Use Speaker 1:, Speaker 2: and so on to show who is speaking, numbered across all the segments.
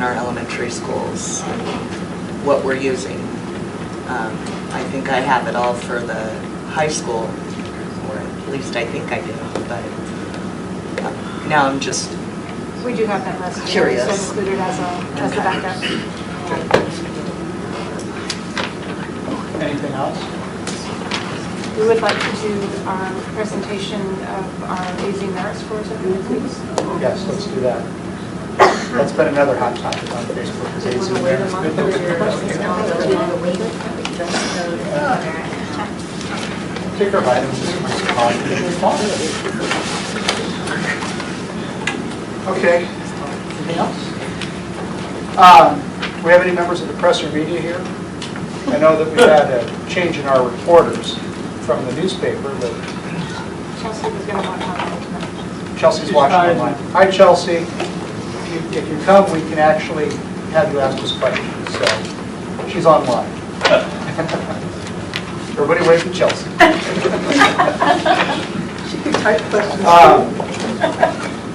Speaker 1: our elementary schools, what we're using. Um, I think I have it all for the high school, or at least I think I do, but um, now I'm just,
Speaker 2: We do have that list. here, so
Speaker 1: Curious.
Speaker 2: Included as a, as a backup.
Speaker 3: Anything else?
Speaker 2: We would like to do our presentation of our aging merit scores every week, please.
Speaker 3: Yes, let's do that. That's been another hot topic on Facebook, is AIDS and Ticker items as much as possible. Okay, anything else? Um, We have any members of the press or media here? I know that we had a change in our reporters from the newspaper, but
Speaker 2: Chelsea was going to want to comment.
Speaker 3: Chelsea's watching online. Hi, Chelsea. If you- If you come, we can actually have you ask us questions, so she's online. Everybody wait for Chelsea. Um,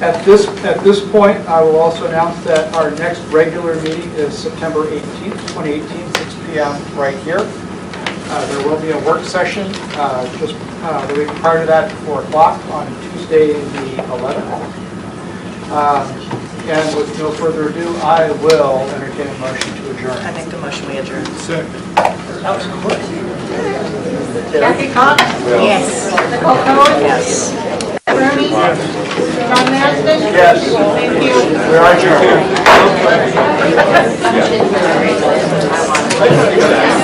Speaker 3: At this, at this point, I will also announce that our next regular meeting is September 18th, 2018, 6 PM, right here. Uh, There will be a work session uh, just uh, the week prior to that, 4 o'clock, on Tuesday, the 11th. Uh, And with no further ado, I will entertain a motion to
Speaker 1: I
Speaker 3: adjourn.
Speaker 1: make the motion we adjourn.
Speaker 2: Kathy Cox? Yes. Nicole Cohen? Yes. Rooney? John Marston?
Speaker 3: Yes.
Speaker 2: Thank you.
Speaker 3: We are adjourned.